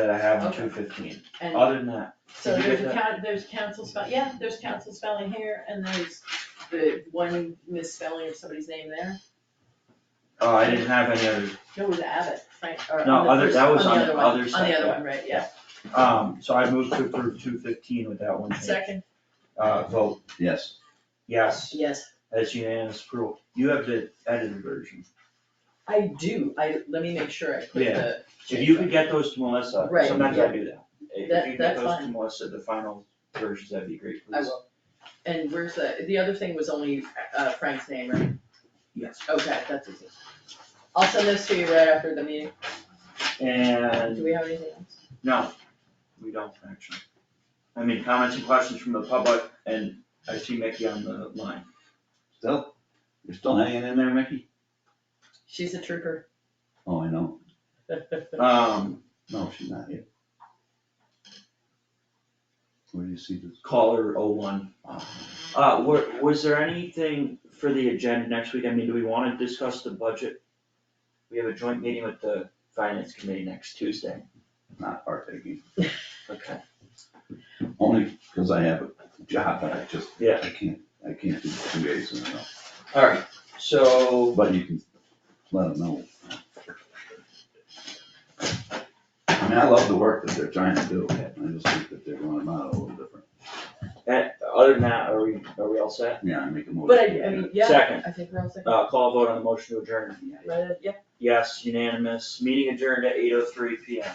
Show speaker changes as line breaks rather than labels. that I have on
Okay.
two fifteen.
And
Other than that,
so
did you
there's
get
a coun, there's council spell, yeah, there's council spelling here and there's the one misspelling of somebody's name there.
oh, I didn't have any other,
No, it was Abbott, right, or
No,
on the
other-
first-
that was on the
other one,
other
On
side,
the other
yeah.
one, right, yeah,
um, so I moved to approve two fifteen with that one change.
second,
Uh, vote,
Yes,
yes,
yes,
that's unanimous approval. You have the edited version.
I do, I, let me make sure I put
Yeah.
the.
If you could get those to Melissa,
Right,
sometimes
yeah.
I do that. If
That-
you could get
that's
those to
fine.
Melissa, the final versions, that'd be great, please.
I will, and where's the, the other thing was only uh, Frank's name, right?
Yes.
Okay, that's easy. I'll send this to you right after the meeting, do
And,
we have anything else?
no, we don't actually. I mean, comments and questions from the public, and I see Mickey on the line.
still, you're still hanging in there, Mickey?
She's a trooper.
Oh, I know,
Um,
no, she's not here. Where do you see this?
caller oh one. Uh, were, was there anything for the agenda next week? I mean, do we wanna discuss the budget? We have a joint meeting with the finance committee next Tuesday.
Not partaking,
Okay.
only because I have a job that I just,
Yeah.
I can't, I can't do two days in a row.
Alright, so.
But you can let them know. I mean, I love the work that they're trying to do, I just think that they're going about it a little different.
Uh, Other than that, are we, are we all set?
Yeah, I make a motion.
But I, I mean, yeah,
Second,
I think we're all second,
uh, call vote on the motion to adjourn.
right, yeah.
Yes, unanimous. Meeting adjourned at eight oh three P M.